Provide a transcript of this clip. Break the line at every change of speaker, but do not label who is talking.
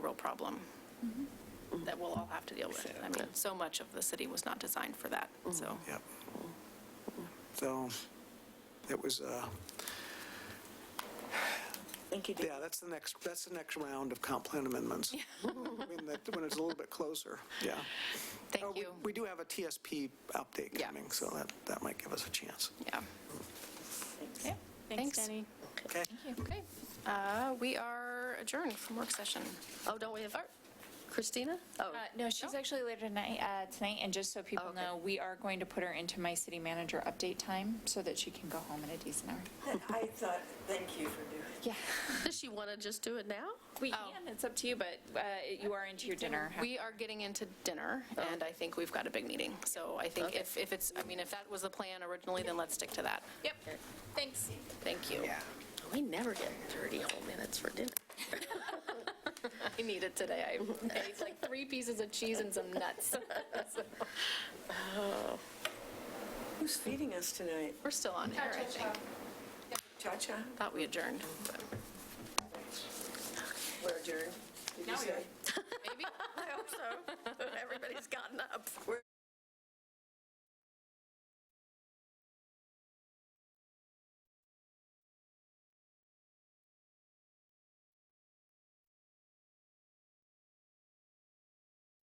real problem
Mm-hmm.
that we'll all have to deal with. I mean, so much of the city was not designed for that,
Mm-hmm.
so.
Yep. So it was, uh,
Thank you,
yeah,
Dave.
that's the next, that's the next round of comp plan amendments. When that- when it's a little bit closer, yeah. Oh,
Thank
we-
you.
We do have a TSP update
Yeah.
coming, so that, that might give us a chance.
Yeah. Yeah, thanks.
Thanks, Denny.
Okay?
Okay. Uh, We are adjourned from work session.
Oh, don't we have our- Christina? Oh,
Uh, No, she's actually later tonight, uh, tonight, and just so
Oh,
people
okay.
know, we are going to put her into my city manager update time so that she can go home at a decent hour.
I thought, thank you for doing
Yeah.
does she want to just do it now?
We can, it's up to you, but uh, you are into your dinner.
We are getting into dinner, and I think we've got a big meeting. So I think
Oh. Okay.
if if it's, I mean, if that was the plan originally, then let's stick to that.
Yep, thanks.
Thank you.
We never get 30 whole minutes for dinner.
I need it today. I ate like three pieces of cheese and some nuts.
Who's feeding us tonight?
We're still on air, I think.
Cha-cha?
Thought we adjourned. but-
We're adjourned. Did you say?